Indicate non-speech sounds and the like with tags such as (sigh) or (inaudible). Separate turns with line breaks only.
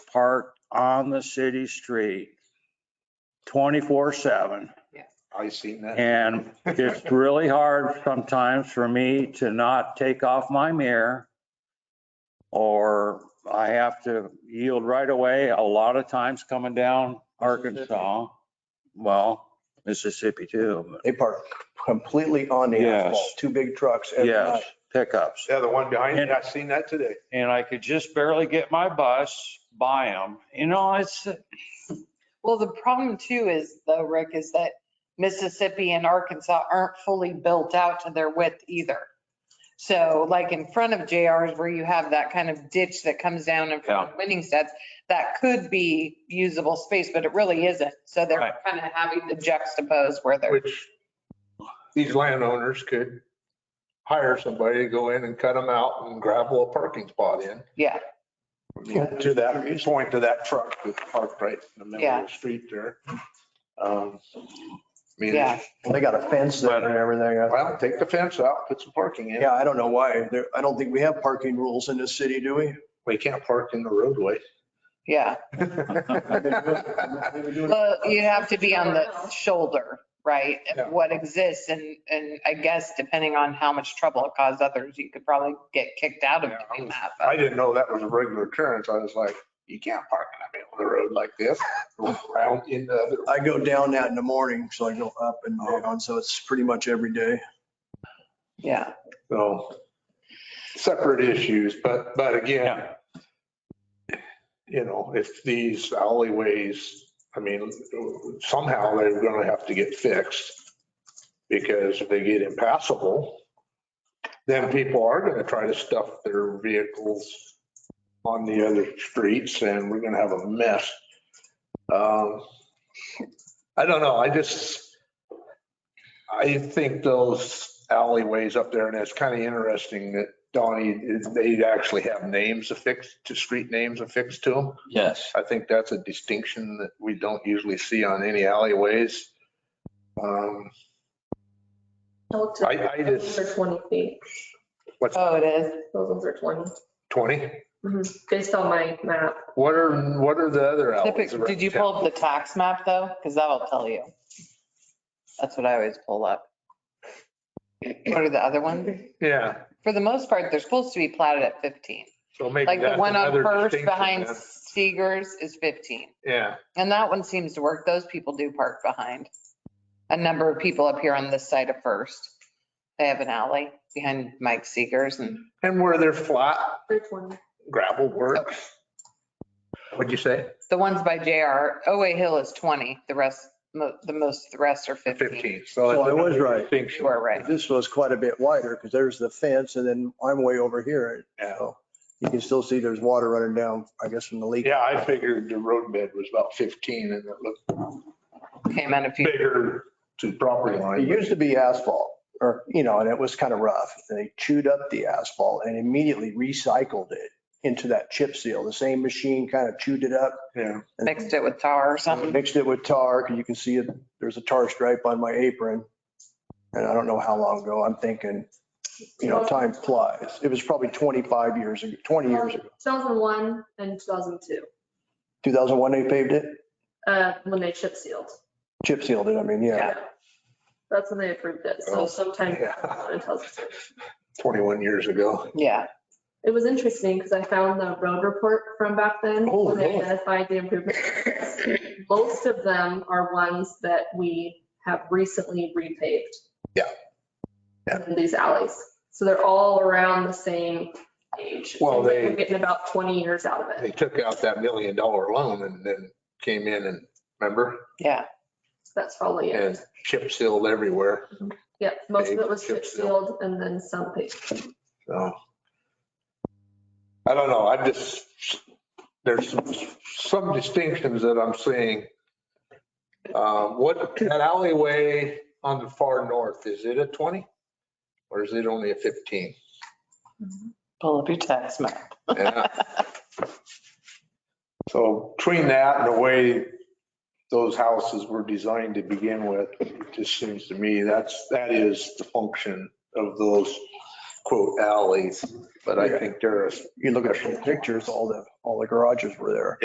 parked on the city street twenty-four seven.
I seen that.
And it's really hard sometimes for me to not take off my mirror. Or I have to yield right away a lot of times coming down Arkansas. Well, Mississippi too,
They park completely on the
Yes.
asphalt, two big trucks
but
every
yes,
night.
pickups.
Yeah, the one behind me,
And-
I seen that today.
And I could just barely get my bus by them. You know, it's,
Well, the problem too is though, Rick, is that Mississippi and Arkansas aren't fully built out to their width either. So like in front of JR's where you have that kind of ditch that comes down in front of Winningsted's, that could be usable space, but it really isn't. So they're
Right.
kind of having to juxtapose where they're.
Which these landowners could hire somebody to go in and cut them out and gravel a parking spot in.
Yeah.
To that point, to that truck that's parked right in the middle
Yeah.
of the street there. Um, I mean,
Yeah.
They got a fence there and everything.
well, take the fence out, put some parking in.
Yeah, I don't know why. There, I don't think we have parking rules in this city, do we?
We can't park in
(laughs)
the roadway.
Yeah. Well, you have to be on the shoulder, right? of
Yeah.
What exists and, and I guess depending on how much trouble it caused others, you could probably get kicked out of
Yeah, I
doing
was-
that. but-
I didn't know that was a regular occurrence. I was like, you can't park in the middle of the road like this, around in the other.
I go down that in the morning, so I go up and down, so it's pretty much every day.
Yeah,
So separate issues, but, but again,
Yeah.
you know, if these alleyways, I mean, somehow they're going to have to get fixed because if they get impassable, then people are going to try to stuff their vehicles on the other streets and we're going to have a mess. Um, I don't know. I just, I think those alleyways up there, and it's kind of interesting that Donnie, they actually have names affixed to street names affixed to them.
Yes.
I think that's a distinction that we don't usually see on any alleyways. Um,
No, it's-
I- I just-
Those are 20 feet.
what's
oh, it is.
Those ones are 20,
20?
Mhm. based on my map.
What are, what are the other alleys?
Typic-
around
Did you
town?
pull up the tax map though? Because that'll tell you. That's what I always pull up. What are the other ones?
(laughs) Yeah,
For the most part, they're supposed to be platted at 15.
so maybe
Like the
that's
one on
another
First
distinction
behind
then.
Seegers is 15.
Yeah,
And that one seems to work. Those people do park behind. A number of people up here on this side of First. They have an alley behind Mike Seegers and
and where they're flat
They're 20.
gravel works. What'd you say?
the ones by JR, OA Hill is 20. The rest, mo- the most, the rest are 15.
15, so.
So I was
another
right.
distinction.
You are right.
This was quite a bit wider because there's the fence and then I'm way over here.
Yeah.
So you can still see there's water running down, I guess, from the leak.
Yeah, I figured the roadbed was about 15 and it looked
Came in a few.
bigger to property
It
line.
used to be asphalt or, you know, and it was kind of rough. They chewed up the asphalt and immediately recycled it into that chip seal. The same machine kind of chewed it up.
Yeah.
and
mixed it with tar or something.
Mixed it with tar, 'cause you can see it, there's a tar stripe on my apron. And I don't know how long ago, I'm thinking, you know, time flies. It was probably 25 years, ago, 20 years ago.
2001 and 2002,
2001, they paved it,
uh, when they chip sealed.
chip sealed it, I mean, yeah.
That's when they approved it.
Oh.
So sometime
Yeah.
(laughs)
2001 and 2002.
21 years ago.
Yeah,
It was interesting because I found the road report from back then.
Oh,
when They
really?
identified the improvements. Most of them are ones that we have recently repaved.
Yeah. Yeah.
In These alleys. So they're all around the same age.
Well, they-
We're getting about 20 years out of it.
They took out that million dollar loan and then came in and, remember?
yeah.
That's probably
And
it.
chip sealed everywhere.
Yep, most of
Paved,
it was
chip
chip sealed and then some paved.
So. I don't know. I'm just, there's some- some distinctions that I'm seeing. Um, What, that alleyway on the far north, is it a 20? Or is it only a 15?
Pull up your tax map.
Yeah. So between that and the way those houses were designed to begin with, it just seems to me that's, that is the function of those quote alleys. But I think there are
You look at the pictures, all the, all the garages were there.